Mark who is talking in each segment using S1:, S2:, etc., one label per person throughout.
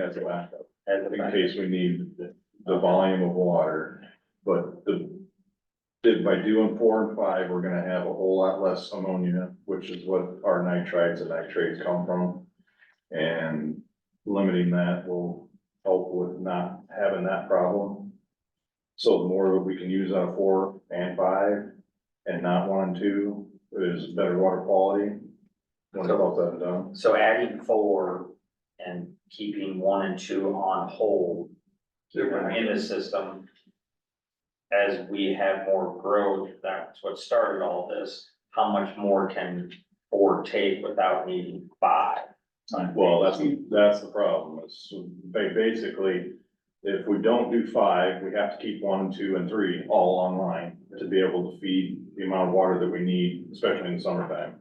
S1: as a backup, in case we need the volume of water, but the. Did by doing four and five, we're gonna have a whole lot less ammonia, which is what our nitrites and nitrates come from. And limiting that will help with not having that problem. So the more we can use out of four and five and not one and two is better water quality. When it's all said and done,
S2: So adding four and keeping one and two on hold in the system. As we have more growth, that's what started all this, how much more can four take without needing five?
S1: well, that's, that's the problem, is ba- basically, if we don't do five, we have to keep one and two and three all online to be able to feed the amount of water that we need, especially in the summertime.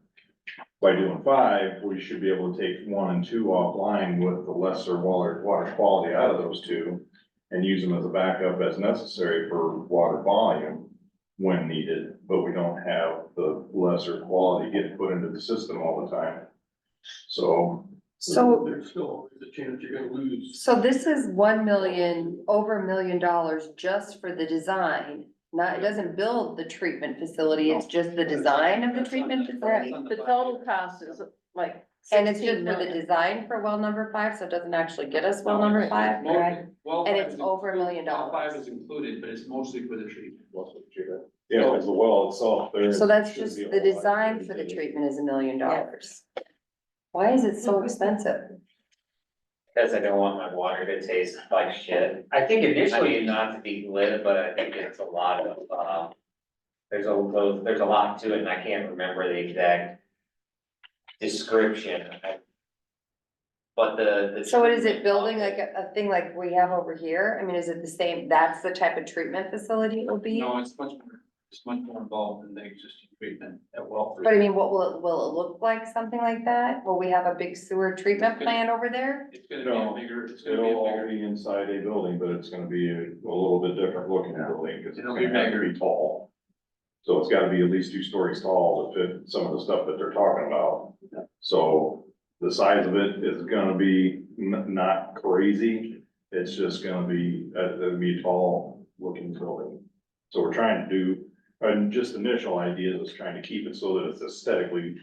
S1: By doing five, we should be able to take one and two offline with the lesser water, water quality out of those two and use them as a backup as necessary for water volume when needed, but we don't have the lesser quality getting put into the system all the time. So
S3: So,
S4: There's still always a chance you're gonna lose.
S3: so this is one million, over a million dollars just for the design. Not, it doesn't build the treatment facility, it's just the design of the treatment facility.
S5: The total cost is like
S3: And it's just
S5: sixteen
S3: for the
S5: million.
S3: design for well number five, so it doesn't actually get us well number five, correct?
S4: Well,
S3: And
S4: five
S3: it's
S4: is
S3: over a million
S4: included- well, Five
S3: dollars.
S4: is included, but it's mostly for the treatment.
S1: Yeah, because the well itself, there.
S3: So that's
S1: shouldn't
S3: just,
S1: be a
S3: the
S1: whole lot
S3: design
S1: to
S3: for the
S1: do.
S3: treatment is a million dollars. Why is it so expensive?
S6: Cause I don't want my water to taste like shit.
S2: I think
S6: I mean,
S2: initially,
S6: not to be glib, but I think it's a lot of, um, there's a, there's a lot to it and I can't remember the exact description. I- But the, the.
S3: So what is it building like a, a thing like we have over here? I mean, is it the same, that's the type of treatment facility it will be?
S4: No, it's much more, it's much more involved than the existing treatment at Wellford.
S3: But I mean, what will, it will it look like, something like that? Will we have a big sewer treatment plant over there?
S4: It's gonna be a
S1: No,
S4: bigger, it's gonna be
S1: It'll
S4: a
S1: all
S4: bigger,
S1: be inside a building, but it's gonna be a a little bit different looking building, because it's
S4: It'll be
S1: gonna have to be tall. So it's gotta be at least two stories tall to fit some of the stuff that they're talking about. So the size of it is gonna be n- not crazy, it's just gonna be, uh, it'll be a tall looking building. So we're trying to do, and just initial ideas is trying to keep it so that it's aesthetically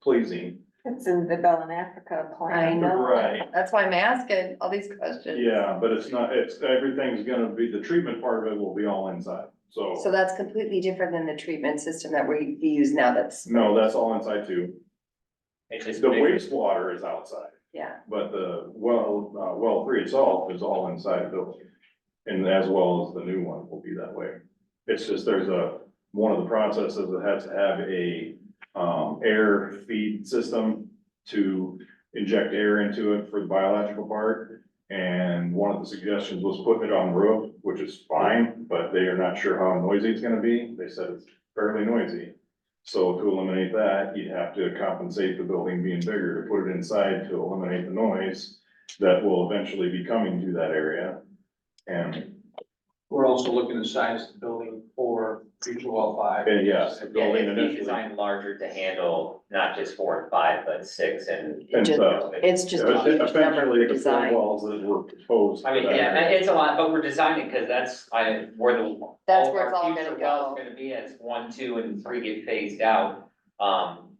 S1: pleasing.
S5: It's in the Bell in Africa
S3: I
S5: plan.
S3: know.
S1: Right.
S3: That's why I'm asking all these questions.
S1: Yeah, but it's not, it's, everything's gonna be, the treatment part of it will be all inside,
S3: So
S1: so,
S3: that's completely different than the treatment system that we use now. That's,
S1: no, that's all inside too.
S6: It's
S1: The
S6: just bigger.
S1: wastewater is outside,
S3: yeah.
S1: but the well, uh, well three itself is all inside the building. And as well as the new one will be that way. It's just there's a, one of the processes that has to have a, um, air feed system to inject air into it for the biological part. And one of the suggestions was putting it on the roof, which is fine, but they are not sure how noisy it's gonna be. They said it's fairly noisy. So to eliminate that, you'd have to compensate the building being bigger to put it inside to eliminate the noise that will eventually be coming to that area. And,
S4: we're also looking to size the building for future well five.
S1: and yes, the
S6: Yeah,
S1: building
S6: it'd be
S1: initially.
S6: designed larger to handle not just four and five, but six and.
S1: And
S3: Just-
S1: so-
S3: It's just a
S1: Yeah,
S3: huge number
S1: Effectively, the four
S3: for design.
S1: walls that were proposed.
S6: I mean,
S1: for that
S6: yeah,
S1: area.
S6: it's a lot, but we're designing, cause that's, I, where the.
S3: That's
S6: of
S3: where
S6: our
S3: it's all
S6: future
S3: gonna
S6: wells
S3: go.
S6: Gonna be as one, two, and three get phased out, um,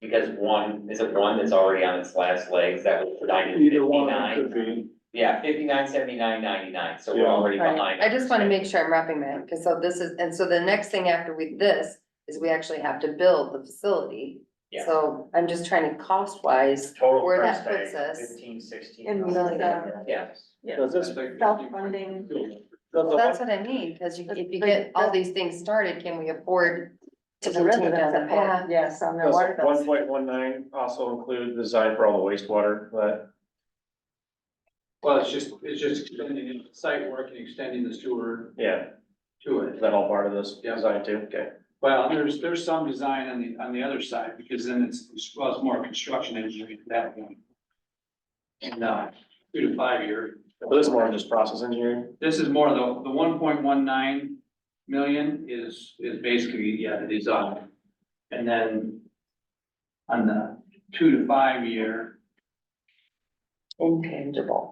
S6: because one, is it one that's already on its last legs, that was designed in
S1: Either one of them could
S6: fifty-nine?
S1: be,
S6: Yeah, fifty-nine, seventy-nine, ninety-nine, so we're
S1: Yeah.
S6: already
S3: Right.
S6: behind.
S3: I just want to make sure I'm wrapping my, because so this is, and so the next thing after we, this is we actually have to build the facility.
S6: Yeah.
S3: So I'm just trying to cost wise,
S6: Total
S3: where that
S6: price tag,
S3: puts us
S6: fifteen, sixteen.
S5: In
S3: million.
S5: the, uh,
S6: Yeah.
S7: Does this, does
S5: Self-funding.
S7: the
S3: Well, that's
S7: one,
S3: what I mean, because you- if you
S5: But-
S3: get all
S5: but-
S3: these things started, can we afford to
S5: to the
S3: continue down
S5: residents
S3: the
S5: of
S3: path?
S5: Pan, yes, on their
S7: does
S5: water
S7: one
S5: bills.
S7: point one nine also include design for all the wastewater, that,
S4: Well, it's just, it's just extending it, site work and extending the sewer
S7: yeah,
S4: to it.
S7: is that all part of this
S4: Yeah.
S7: design too? Okay.
S4: Well, there's, there's some design on the, on the other side, because then it's, well, it's more construction engineering at that point. And, uh, two to five year.
S7: But this is more just process engineering,
S4: This is more the, the one point one nine million is, is basically, yeah, the design. And then on the two to five year,
S3: Intangible.